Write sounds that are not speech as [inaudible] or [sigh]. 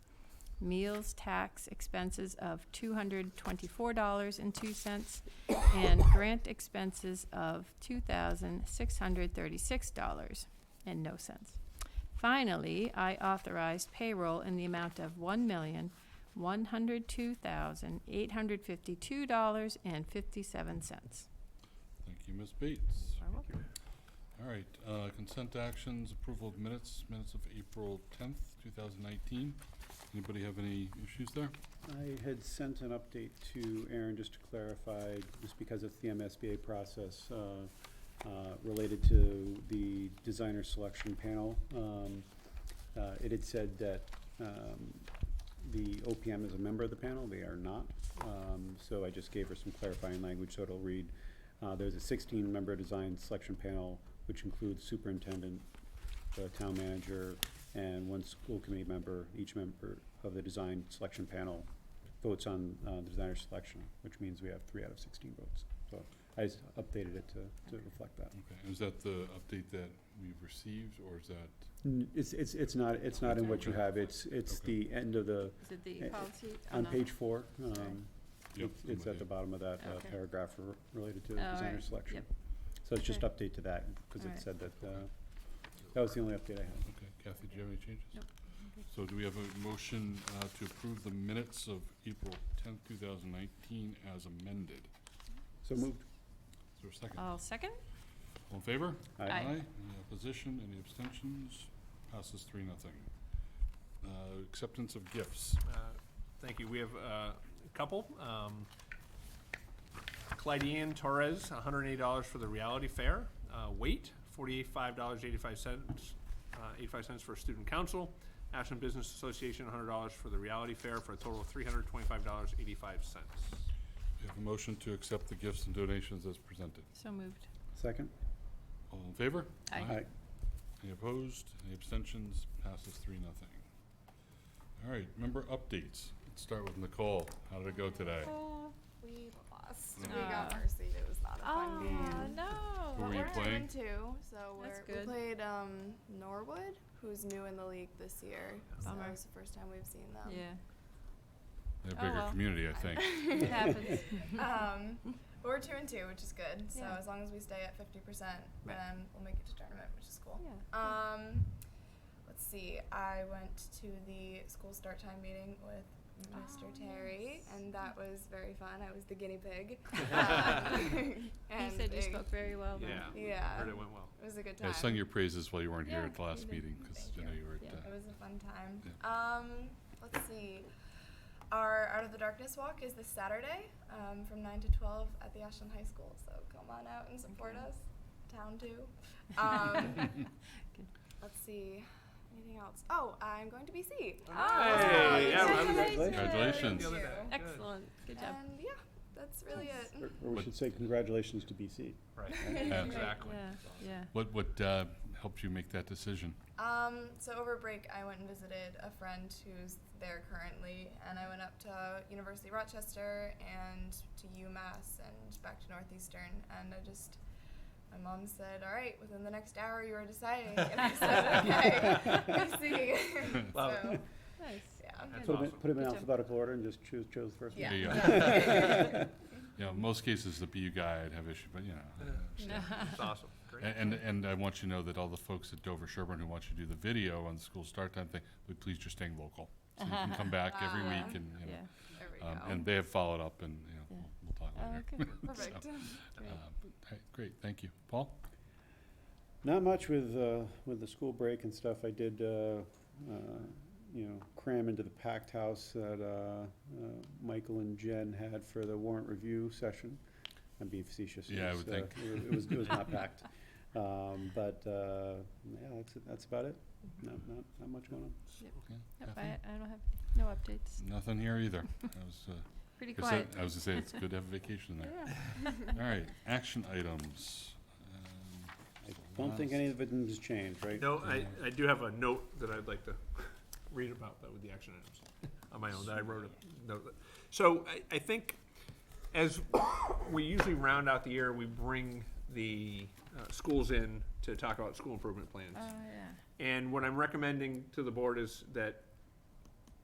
meals tax expenses of two hundred twenty-four dollars and two cents and grant expenses of two thousand six hundred thirty-six dollars and no cents. Finally, I authorized payroll in the amount of one million one hundred two thousand eight hundred fifty-two dollars and fifty-seven cents. Thank you, Ms. Bates. You're welcome. All right, uh, consent actions, approval of minutes, minutes of April tenth, two thousand nineteen. Anybody have any issues there? I had sent an update to Aaron just to clarify, just because it's the MSBA process, uh, uh, related to the designer selection panel. Um, uh, It had said that um, the OPM is a member of the panel, they are not. Um, So I just gave her some clarifying language, so it'll read, uh, there's a sixteen-member design selection panel, which includes superintendent, the town manager, and one school committee member, each member of the design selection panel votes on uh, the designer selection, which means we have three out of sixteen votes. So I just updated it to, to reflect that. Okay, is that the update that we've received, or is that, N- It's, it's, it's not, it's not in what you Okay. have, it's, it's Okay. the end of the, Is it the Eh, policy? Oh, on no. page four. um, Sorry. yep? it's- It's at the bottom of that uh, Okay. paragraph re- related to Oh, designer right, selection. yep. So it's just Okay. update to that, because Alright. it said that, uh, Okay. that was the only update I had. Okay, Kathy, do you have any changes? Nope. So do we have a motion uh, to approve the minutes of April tenth, two thousand nineteen as amended? So moved. Is there a second? I'll second. All in favor? Aye. Uh, Aye. Any opposition, any abstentions? Passes three, nothing. Uh, Acceptance of gifts. Uh, Thank you. We have uh, a couple. Um, Clydean Torres, $108 for the reality fair. Uh, Wait, $45.85, uh, 85 cents for student council. Ashland Business Association, $100 for the reality fair, for a total of $325.85. We have a motion to accept the gifts and donations as presented. So moved. Second? All in favor? Aye. Aye. Any opposed? Any abstentions? Passes three, nothing. All right, member updates. Let's start with Nicole. How did it go today? Oh, We lost. We Ah. got mercied. It was not a fun Oh, game. no. Who But were you we're playing? two, and two, so we're, That's we good. played um, Norwood, who's new in the league this year. Bummer. So it's the first time we've seen them. Yeah. They're Oh, a bigger well. community, I think. [laughs] It happens. [laughs] um, but we're two and two, which is good. So Yeah. as long as we stay at fifty percent, Right. then we'll make it to tournament, which is cool. [laughs] Yeah, yeah. Um, let's see. I went to the school start time meeting with Mr. Oh, Terry, nice. and that was very fun. I was the guinea [laughs] pig. [laughs] Um, He and said you it- spoke very well then. [laughs] Yeah. Yeah. Heard it went well. It was a good time. I sung your praises while you weren't here Yeah, at the last you did. meeting, because Thank I know you. you were Yeah. at, uh, It was a fun time. Yeah. Um, let's see. Our Out of the Darkness walk is this Saturday um, from 9 to 12 at the Ashland High School. So come on out and support Okay. us. Town too. [laughs] Um, let's see. Anything else? Oh, I'm going to BC. Ah, Hey, yeah, well, congratulations. Congratulations. The other Thank day. you. Good. Excellent, good job. And yeah, that's really Or it. or we What- should say congratulations to BC. Right. Yeah. Exactly. Yeah, yeah. What, what uh, helped you make that decision? Um, so over break, I went and visited a friend who's there currently, and I went up to University of Rochester and to UMass and back to Northeastern, and I just. My mom said, "All right, within the next hour, you are deciding." And I said, "Okay, I see." [laughs] Love so, [laughs] Nice. [laughs] yeah. That's Put them, in- awesome. put 'em in Good job. alphabetical order and just choose, chose the first one. Yeah. There you [laughs] go. Yeah, in uh, most cases, the BU guy, I'd have issue, but you know. I understand. [laughs] It's awesome. Great. A- Mm-hmm. And, and I want you to know that all the folks at Dover Sherburne who want you to do the video on the school start time thing, would please just staying local. So [laughs] you can come back every Ah. week and, you know. Yeah. There we Um, go. and they have followed up and, you know, Yeah. we'll- we'll talk Oh, later. okay. Perfect. Um, hey, Great, thank you. Paul? Not much with, uh, with the school break and stuff. I did, uh, uh, you know, cram into the packed house that, uh, uh, Michael and Jen had for the warrant review session. I'm being facetious. Yeah, I It was, would uh, It was, it was [laughs] not packed. Um, but, uh, yeah, that's, that's about it. Not, not, not much going on. Yeah, Nope, I, Kathleen? I don't have, no updates. Nothing here [laughs] either. I was, uh, Pretty I said- quiet. I was gonna say, it's good to have a vacation [laughs] there. Yeah. All right, action items. Um, I don't think any of it has changed, right? No, I, I do have a note that I'd like to [laughs] read about that with the action items on my own, that I wrote a note. that- So I, I think as we usually round out the year, we bring the uh, schools in to talk about school improvement plans. Oh, yeah. And what I'm recommending to the board is that